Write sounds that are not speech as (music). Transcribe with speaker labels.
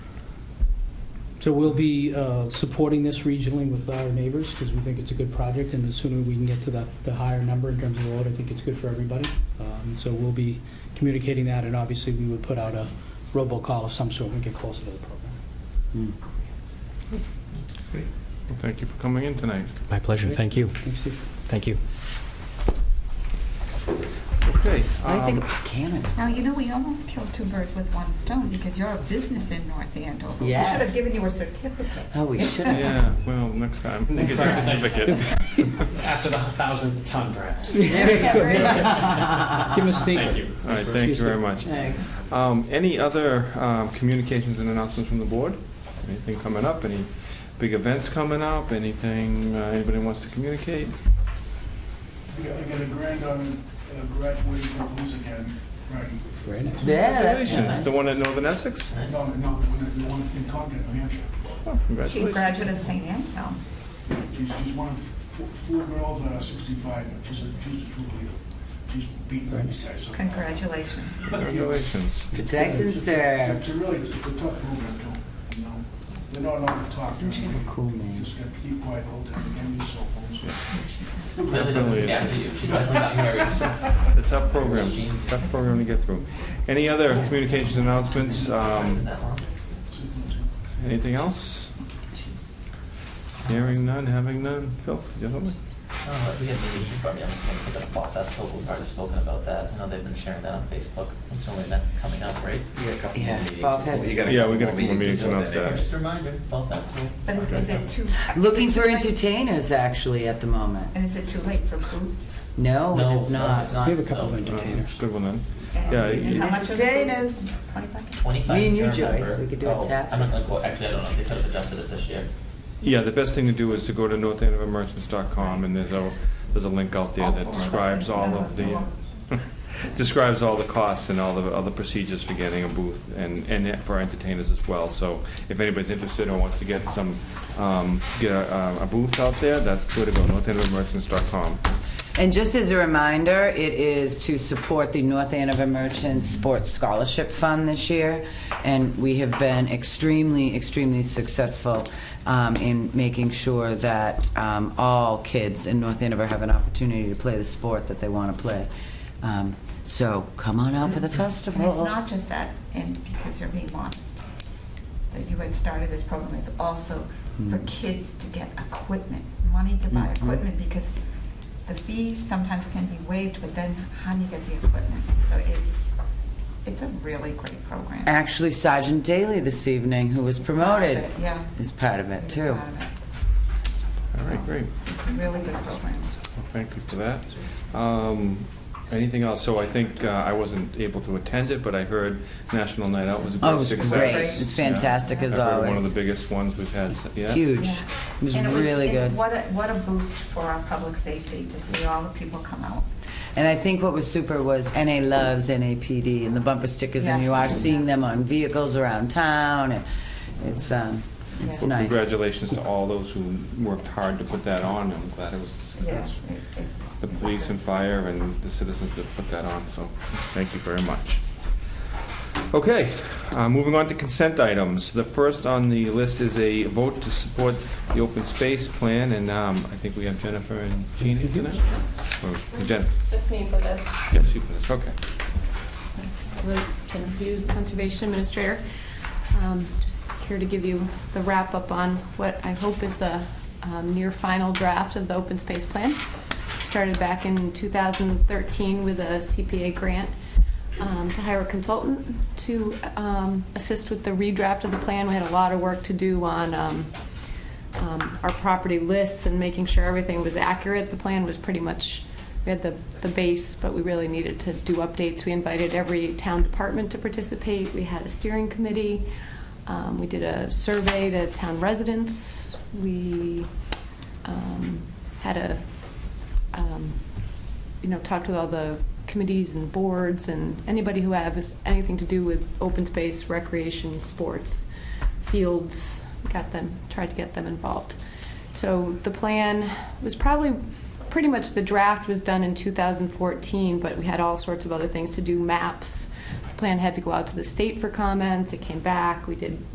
Speaker 1: So we'll be uh, supporting this regionally with our neighbors because we think it's a good project, and the sooner we can get to the the higher number in terms of load, I think it's good for everybody. Um, So we'll be communicating that, and obviously, we would put out a robocall of some sort when we get closer to the program.
Speaker 2: Well, Thank you for coming in tonight.
Speaker 3: My pleasure. Thank you.
Speaker 1: Thanks, Steve.
Speaker 3: Thank you.
Speaker 2: Okay.
Speaker 4: I think
Speaker 2: um,
Speaker 1: (laughs)
Speaker 4: cannons.
Speaker 5: Now, you know, we almost killed two birds with one stone because you're a business in North Andover. We should
Speaker 4: Yes.
Speaker 5: have given you
Speaker 4: (laughs)
Speaker 5: a certificate.
Speaker 4: Oh, we should have.
Speaker 2: Yeah, well, next time. You get your certificate.
Speaker 6: After the thousandth ton, perhaps.
Speaker 1: Give him a sneaker.
Speaker 6: Thank you.
Speaker 2: All right, thank you very much.
Speaker 4: Thanks.
Speaker 2: Um, Any other um, communications and announcements from the board? Anything coming up? Any big events coming up? Anything uh, anybody wants to communicate?
Speaker 7: I got I got a granddaughter uh, graduating from Blues Academy, right?
Speaker 1: Very nice.
Speaker 4: Yeah, that's
Speaker 2: Congratulations,
Speaker 4: nice.
Speaker 2: the one at Northern Essex?
Speaker 7: No, no, the one in Concord, New Hampshire.
Speaker 2: Oh,
Speaker 5: She's a
Speaker 2: Congratulations.
Speaker 5: graduate of St. Anselm.
Speaker 7: She's, she's one of four, four girls out of 65, and she's a, she's a true leader. She's beating up these guys. so-
Speaker 5: Congratulations.
Speaker 7: (laughs)
Speaker 2: Congratulations.
Speaker 4: Protect and
Speaker 7: It's
Speaker 4: serve.
Speaker 7: a really, it's a it's a tough program, too, you know? They're not allowed to talk.
Speaker 4: Doesn't she have a cool
Speaker 7: You
Speaker 4: name?
Speaker 7: Just gotta keep quiet, hold it, and give me cell phones.
Speaker 6: Really doesn't care to you. She's definitely not
Speaker 7: (laughs)
Speaker 6: married.
Speaker 2: It's a tough program, tough program to get through. Any other communications announcements? Um, Anything else? Hearing none, having none. Phil, you have something?
Speaker 6: Uh, We had the issue from the other the Fall Festival, we've already spoken about that. I know they've been sharing that on Facebook. It's only that coming up, right?
Speaker 4: Yeah, Fall Festival.
Speaker 2: Yeah, we got a couple more meetings to announce
Speaker 6: Just a
Speaker 2: that.
Speaker 6: reminder, Fall Festival.
Speaker 5: But is, is it too?
Speaker 4: Looking
Speaker 5: is it
Speaker 4: for
Speaker 5: too late-
Speaker 4: entertainers, actually, at the moment.
Speaker 5: And is it too late for booths?
Speaker 4: No,
Speaker 6: No,
Speaker 4: it is
Speaker 6: it's
Speaker 4: not.
Speaker 6: not.
Speaker 1: We have a couple of
Speaker 6: So,
Speaker 2: Uh,
Speaker 1: entertainers.
Speaker 2: it's a Good one then.
Speaker 5: And
Speaker 2: Yeah,
Speaker 5: it's
Speaker 2: it-
Speaker 5: how much of the
Speaker 4: Entertainers.
Speaker 5: booths? Twenty-five?
Speaker 6: Twenty-five.
Speaker 4: Me and you,
Speaker 6: I can't
Speaker 4: Joyce,
Speaker 6: remember.
Speaker 4: we could do a
Speaker 6: Oh,
Speaker 4: tap
Speaker 6: I'm not gonna
Speaker 4: dance.
Speaker 6: go, actually, I don't know, they could have adjusted it this year.
Speaker 2: Yeah, the best thing to do is to go to northandovermerchants.com and there's a, there's a link out there that describes all of the, (laughs) describes all the costs and all the, all the procedures for getting a booth and, and for entertainers as well. So if anybody's interested or wants to get some, um, get a, uh, a booth out there, that's where to go, northandovermerchants.com.
Speaker 4: And just as a reminder, it is to support the North Andover Merchants Sports Scholarship Fund this year, and we have been extremely, extremely successful um, in making sure that um, all kids in North Andover have an opportunity to play the sport that they want to play. Um, So come on out for the
Speaker 5: And it's
Speaker 4: festival.
Speaker 5: not just that, and because you're being modest, that you had started this program, it's also for
Speaker 4: Mm.
Speaker 5: kids to get equipment, money to buy
Speaker 4: Mm-hmm.
Speaker 5: equipment, because the fees sometimes can be waived, but then how do you get the equipment? So it's, it's a really great program.
Speaker 4: Actually, Sergeant Daly this evening, who was promoted,
Speaker 5: Yeah.
Speaker 4: is part of it,
Speaker 5: He's
Speaker 4: too.
Speaker 5: proud of it.
Speaker 2: All right, great.
Speaker 5: It's a really good program.
Speaker 2: Well, Thank you for that. Um, Anything else? So I think uh, I wasn't able to attend it, but I heard National Night Out was a
Speaker 4: Oh, it
Speaker 2: great
Speaker 4: was
Speaker 2: success.
Speaker 4: great. It was
Speaker 2: Yeah.
Speaker 4: fantastic, as
Speaker 2: I've heard One of
Speaker 4: always.
Speaker 2: the biggest ones we've had yet.
Speaker 4: Huge.
Speaker 5: Yeah.
Speaker 4: It was
Speaker 5: And
Speaker 4: really
Speaker 5: and
Speaker 4: good.
Speaker 5: What a, what a boost for our public safety to see all the people come out.
Speaker 4: And I think what was super was NA loves NAPD and the bumper stickers, and
Speaker 5: Yeah.
Speaker 4: you are seeing them on vehicles around town, and it's, um, it's
Speaker 2: Well,
Speaker 5: Yeah.
Speaker 4: nice.
Speaker 2: Congratulations to all those who worked hard to put that on. I'm glad it was a success.
Speaker 5: It- it-
Speaker 2: The police and fire and the citizens that put that on, so thank you very much. Okay, uh, moving on to consent items. The first on the list is a vote to support the open space plan, and um, I think we have Jennifer and Jean here tonight? Or Jen,
Speaker 8: Just me for this.
Speaker 2: yes, you first, okay.
Speaker 8: So, Hello, Jennifer Hughes, Conservation Administrator. Um, Just here to give you the wrap-up on what I hope is the um, near final draft of the open space plan. Started back in 2013 with a CPA grant um, to hire a consultant to um, assist with the redraft of the plan. We had a lot of work to do on um, um, our property lists and making sure everything was accurate. The plan was pretty much, we had the, the base, but we really needed to do updates. We invited every town department to participate. We had a steering committee. Um, We did a survey to town residents. We um, had a, um, you know, talked with all the committees and boards and anybody who has anything to do with open space, recreation, sports fields, got them, tried to get them involved. So the plan was probably, pretty much the draft was done in 2014, but we had all sorts of other things to do, maps. The plan had to go out to the state for comments, it came back, we did